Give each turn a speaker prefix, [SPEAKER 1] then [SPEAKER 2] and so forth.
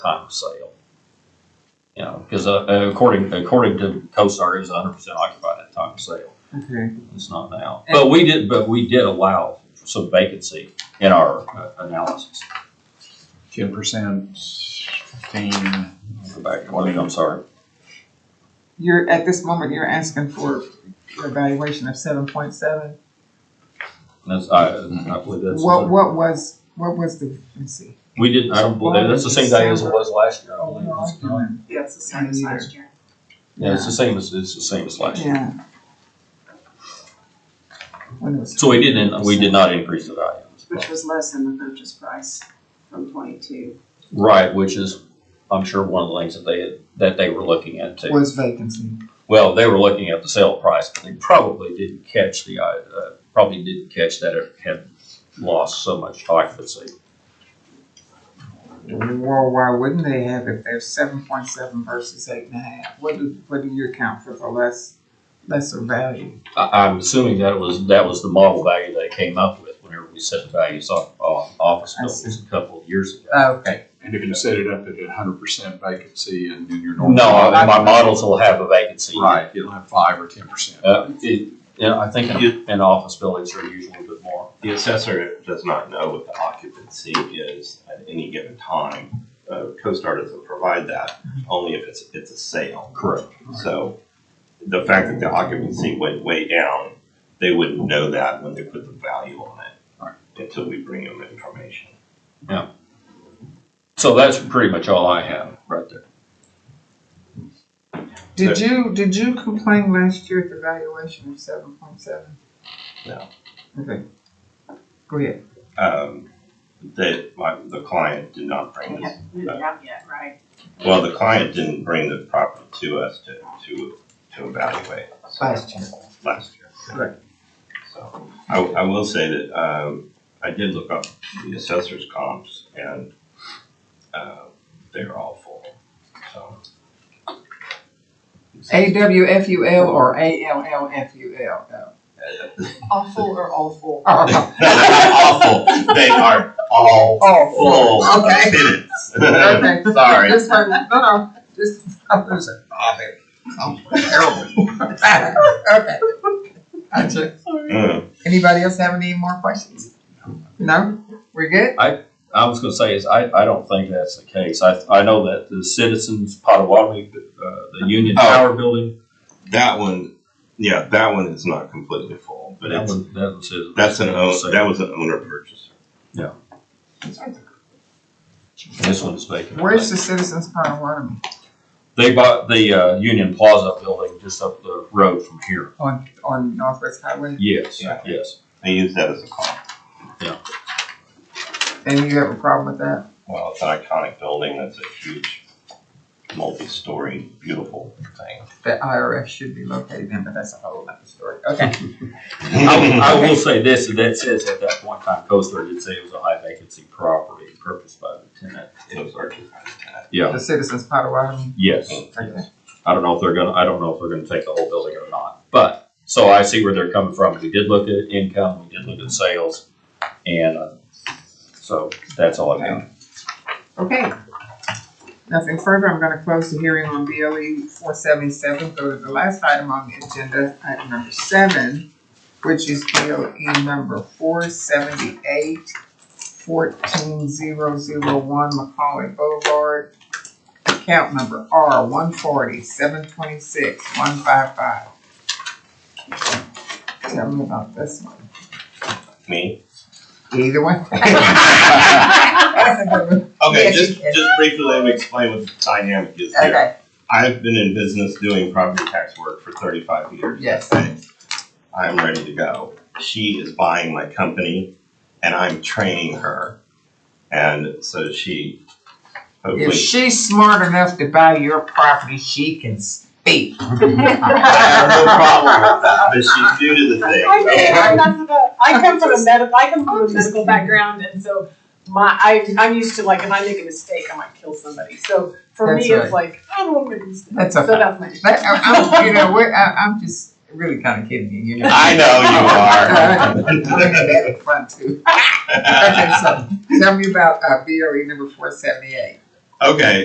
[SPEAKER 1] time of sale. You know, because according, according to CoStar, it was hundred percent occupied at time of sale.
[SPEAKER 2] Okay.
[SPEAKER 1] It's not now. But we did, but we did allow some vacancy in our uh, analysis.
[SPEAKER 3] Ten percent, fifteen.
[SPEAKER 1] Go back, I mean, I'm sorry.
[SPEAKER 2] You're, at this moment, you're asking for your evaluation of seven point seven.
[SPEAKER 1] That's, I, I believe that's.
[SPEAKER 2] What, what was, what was the, let's see.
[SPEAKER 1] We didn't, I don't believe, that's the same day as it was last year, I believe.
[SPEAKER 4] Yeah, it's the same as last year.
[SPEAKER 1] Yeah, it's the same as, it's the same as last year.
[SPEAKER 2] Yeah. When it was.
[SPEAKER 1] So we didn't, we did not increase the value.
[SPEAKER 4] Which was less than the purchase price from twenty-two.
[SPEAKER 1] Right, which is, I'm sure one of the things that they, had that they were looking at too.
[SPEAKER 2] Was vacancy.
[SPEAKER 1] Well, they were looking at the sale price, but they probably didn't catch the, uh, probably didn't catch that it had lost so much occupancy.
[SPEAKER 2] Well, why wouldn't they have if there's seven point seven versus eight and a half? What do, what do you account for the less, lesser value?
[SPEAKER 1] I, I'm assuming that was, that was the model value they came up with whenever we set the values on, on office
[SPEAKER 2] I see. Uh,
[SPEAKER 1] buildings a couple of years ago.
[SPEAKER 2] Okay,
[SPEAKER 3] And if you set it up at a hundred percent vacancy and then your normal.
[SPEAKER 1] No, I- my models will have a vacancy.
[SPEAKER 3] Right, it'll have five or ten percent.
[SPEAKER 1] Uh, it, yeah, I think in, in office buildings are usually a bit more.
[SPEAKER 5] The assessor does not know what the occupancy is at any given time. Uh, CoStar doesn't provide that, only if it's, it's a sale.
[SPEAKER 1] Correct.
[SPEAKER 5] So the fact that the occupancy went way down, they wouldn't know that when they put the value on
[SPEAKER 3] Right.
[SPEAKER 5] it until we bring them information.
[SPEAKER 1] So that's pretty much all I have right there.
[SPEAKER 2] did you, did you complain last year at the valuation of seven point seven?
[SPEAKER 5] No.
[SPEAKER 2] Okay. Go ahead.
[SPEAKER 5] Um, That my, the client did not bring this,
[SPEAKER 4] We haven't out yet, right?
[SPEAKER 5] well, the client didn't bring the property to us to, to, to evaluate. so-
[SPEAKER 2] Last year.
[SPEAKER 5] last year.
[SPEAKER 2] Correct.
[SPEAKER 5] So, I, I will say that, um, I did look up the assessor's comps and, uh, they're all full, so.
[SPEAKER 2] A W F U L or A L L F U L?
[SPEAKER 4] Awful or awful?
[SPEAKER 2] Oh,
[SPEAKER 5] Awful, they are all full of
[SPEAKER 2] Okay.
[SPEAKER 5] minutes.
[SPEAKER 2] okay.
[SPEAKER 5] Sorry.
[SPEAKER 2] Just, for- no, no, just, I'm losing. I'm terrible. Okay. Gotcha.
[SPEAKER 5] Mm.
[SPEAKER 2] Anybody else have any more questions? No? We're good?
[SPEAKER 1] I was gonna say is I, I don't think that's the case. I, I know that the Citizens Potawatomi, uh, the Union
[SPEAKER 5] Oh.
[SPEAKER 1] Tower building.
[SPEAKER 5] That one, yeah, that one is not completely full, but
[SPEAKER 1] that
[SPEAKER 5] it's,
[SPEAKER 1] one- that one says-
[SPEAKER 5] that's an, own-
[SPEAKER 1] So,
[SPEAKER 5] that was an owner purchaser.
[SPEAKER 1] Yeah. This one is vacant.
[SPEAKER 2] Where's the Citizens Potawatomi?
[SPEAKER 1] They bought the, uh, Union Plaza building just up the road from here.
[SPEAKER 2] On, on Northwest Highway?
[SPEAKER 1] Yes,
[SPEAKER 5] Yeah.
[SPEAKER 1] yes.
[SPEAKER 5] They use that as a comp.
[SPEAKER 2] And you have a problem with that?
[SPEAKER 5] Well, it's an iconic building, that's a huge, multi-story, beautiful thing.
[SPEAKER 2] The IRS should be located in, but that's a whole other story. Okay.
[SPEAKER 1] I will, I will say this, and that says at that point in time, CoStar did say it was a high vacancy property purchased by the tenant.
[SPEAKER 5] Those are just kind of bad.
[SPEAKER 1] Yeah,
[SPEAKER 2] The Citizens Potawatomi?
[SPEAKER 1] yes.
[SPEAKER 2] Okay.
[SPEAKER 1] I don't know if they're gonna, I don't know if they're gonna take the whole building or not, but, so I see where they're coming from. We did look at income, we did look at sales, and, uh, so that's all I got.
[SPEAKER 2] Okay. Nothing further, I'm gonna close the hearing on BLE four seventy-seven, go to the last item on the agenda, item number seven, which is BLE number four seventy-eight, fourteen zero zero one Macaulay Boulevard, account number R one forty, seven twenty-six, one five five. Tell me about this one.
[SPEAKER 5] Me?
[SPEAKER 2] Either one. That's a good one.
[SPEAKER 5] Okay,
[SPEAKER 2] Yes, you
[SPEAKER 5] just,
[SPEAKER 2] can.
[SPEAKER 5] just briefly, let me explain what the dynamic is here.
[SPEAKER 2] Okay,
[SPEAKER 5] I've been in business doing property tax work for thirty-five years.
[SPEAKER 2] yes.
[SPEAKER 5] I'm ready to go. She is buying my company and I'm training her. And so she
[SPEAKER 2] If
[SPEAKER 5] hopefully
[SPEAKER 2] she's smart enough to buy your property, she can speak.
[SPEAKER 5] I have no problem with that, but she's new to the thing.
[SPEAKER 6] I did.
[SPEAKER 5] okay?
[SPEAKER 6] I'm not to the, I come from a med, I come from a medical background, and so my, I, I'm used to like, if I make a mistake, I might kill somebody. So for me,
[SPEAKER 2] That's right.
[SPEAKER 6] it's like, I don't want to make a mistake.
[SPEAKER 2] That's
[SPEAKER 6] So
[SPEAKER 2] okay.
[SPEAKER 6] that's my.
[SPEAKER 2] But I, I'm, you know, we're, I, I'm just really kind of kidding you. You know.
[SPEAKER 5] I know
[SPEAKER 2] I'm having fun too. Okay, so tell me about uh, BRE number four E seventy-eight.
[SPEAKER 5] Okay,